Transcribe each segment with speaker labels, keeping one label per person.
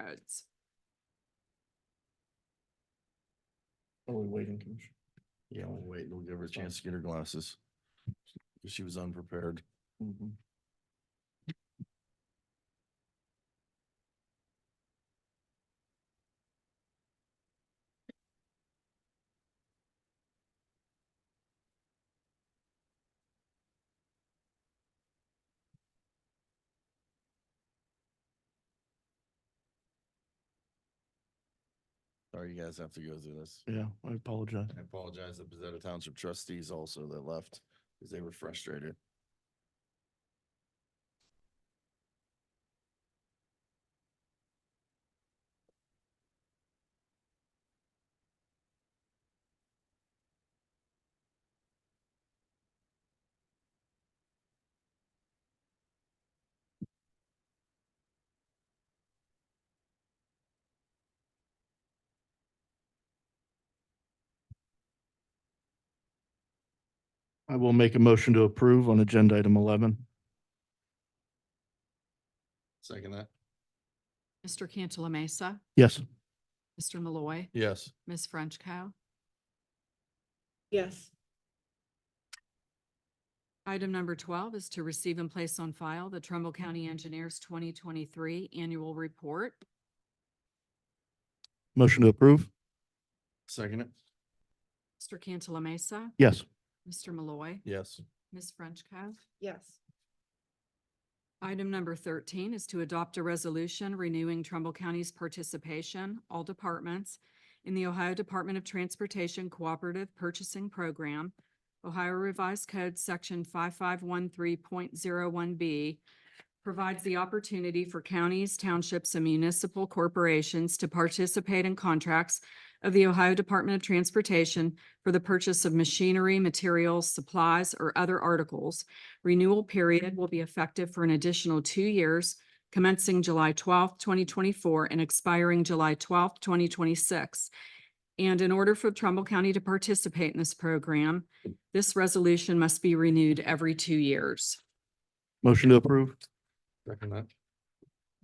Speaker 1: roads.
Speaker 2: Are we waiting, Commissioner?
Speaker 3: Yeah, we'll wait. We'll give her a
Speaker 2: That's fine.
Speaker 3: chance to get her glasses. 'Cause She was unprepared.
Speaker 2: Mhm.
Speaker 3: Sorry, you guys have to go through this.
Speaker 2: Yeah, I apologize.
Speaker 3: I apologize to Bezetta Township trustees also that left because they were frustrated.
Speaker 2: I will make a motion to approve on agenda item eleven.
Speaker 3: Second that?
Speaker 1: Mr. Cantala Mesa,
Speaker 2: Yes.
Speaker 1: Mr. Malloy,
Speaker 3: Yes.
Speaker 1: Ms. Frenchco.
Speaker 4: yes,
Speaker 1: Item number twelve is to receive and place on file the Trumbull County Engineers twenty twenty-three Annual Report.
Speaker 2: Motion to approve?
Speaker 3: Second it?
Speaker 1: Mr. Cantala Mesa,
Speaker 2: Yes.
Speaker 1: Mr. Malloy,
Speaker 3: Yes.
Speaker 1: Ms. Frenchco.
Speaker 4: yes,
Speaker 1: Item number thirteen is to adopt a resolution renewing Trumbull County's participation, all departments, in the Ohio Department of Transportation Cooperative Purchasing Program, Ohio Revised Code, Section five five one three point zero one B, provides the opportunity for counties, townships, and municipal corporations to participate in contracts of the Ohio Department of Transportation for the purchase of machinery, materials, supplies, or other articles Renewal period will be effective for an additional two years, commencing July twelfth, twenty twenty-four and expiring July twelfth, twenty twenty-six. And in order for Trumbull County to participate in this program, this resolution must be renewed every two years.
Speaker 2: Motion to approve?
Speaker 3: Second that?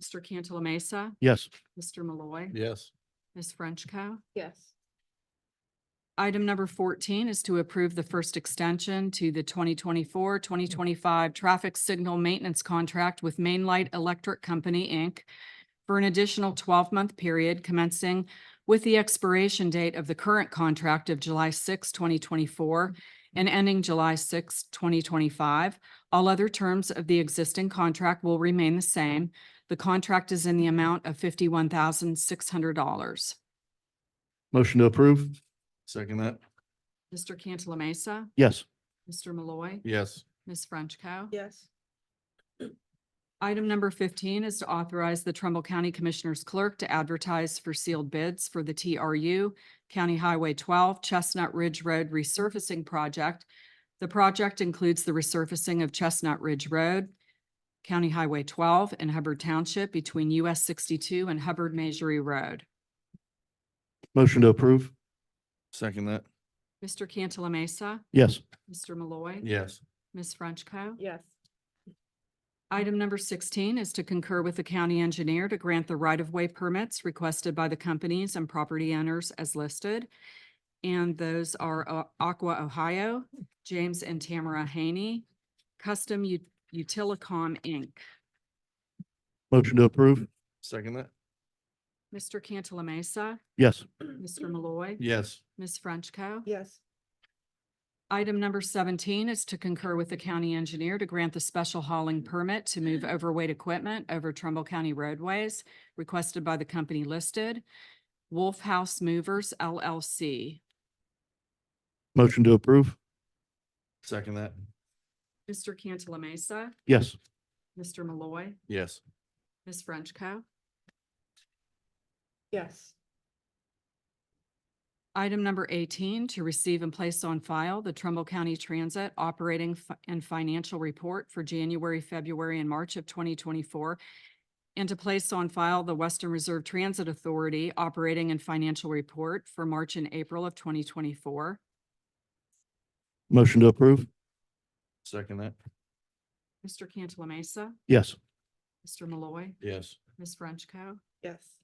Speaker 1: Mr. Cantala Mesa,
Speaker 2: Yes.
Speaker 1: Mr. Malloy,
Speaker 3: Yes.
Speaker 1: Ms. Frenchco.
Speaker 4: yes,
Speaker 1: Item number fourteen is to approve the first extension to the 2024-2025 traffic signal maintenance contract with Main Light Electric Company, Inc. for an additional twelve-month period commencing with the expiration date of the current contract of July 6, twenty twenty-four and ending July 6, twenty twenty-five. All other terms of the existing contract will remain the same. The contract is in the amount of fifty-one thousand six hundred dollars.
Speaker 2: Motion to approve?
Speaker 3: Second that?
Speaker 1: Mr. Cantala Mesa,
Speaker 2: Yes.
Speaker 1: Mr. Malloy.
Speaker 3: Yes.
Speaker 1: Ms. Frenchco.
Speaker 4: yes,
Speaker 1: Item number fifteen is to authorize the Trumbull County Commissioners Clerk to advertise for sealed bids for the TRU County Highway twelve Chestnut Ridge Road resurfacing project. The project includes the resurfacing of Chestnut Ridge Road, County Highway twelve in Hubbard Township between US sixty-two and Hubbard Majorie Road.
Speaker 2: Motion to approve?
Speaker 3: Second that?
Speaker 1: Mr. Cantala Mesa,
Speaker 2: Yes.
Speaker 1: Mr. Malloy.
Speaker 3: Yes.
Speaker 1: Ms. Frenchco.
Speaker 4: yes,
Speaker 1: Item number sixteen is to concur with the county engineer to grant the right-of-way permits requested by the companies and property owners as listed. And those are uh, Aqua Ohio, James and Tamara Haney, Custom U- Utilicom, Inc.
Speaker 2: Motion to approve?
Speaker 3: Second that?
Speaker 1: Mr. Cantala Mesa,
Speaker 2: Yes.
Speaker 1: Mr. Malloy,
Speaker 3: Yes.
Speaker 1: Ms. Frenchco.
Speaker 4: yes,
Speaker 1: Item number seventeen is to concur with the county engineer to grant the special hauling permit to move overweight equipment over Trumbull County roadways requested by the company listed, Wolf House Movers LLC.
Speaker 2: Motion to approve?
Speaker 3: Second that?
Speaker 1: Mr. Cantala Mesa,
Speaker 2: Yes.
Speaker 1: Mr. Malloy,
Speaker 3: Yes.
Speaker 1: Ms. Frenchco.
Speaker 4: yes,
Speaker 1: Item number eighteen, to receive and place on file the Trumbull County Transit Operating Fi- and Financial Report for January, February, and March of twenty twenty-four, and to place on file the Western Reserve Transit Authority Operating and Financial Report for March and April of twenty twenty-four.
Speaker 2: Motion to approve?
Speaker 3: Second that?
Speaker 1: Mr. Cantala Mesa,
Speaker 2: Yes.
Speaker 1: Mr. Malloy,
Speaker 3: Yes.
Speaker 1: Ms. Frenchco.
Speaker 4: yes,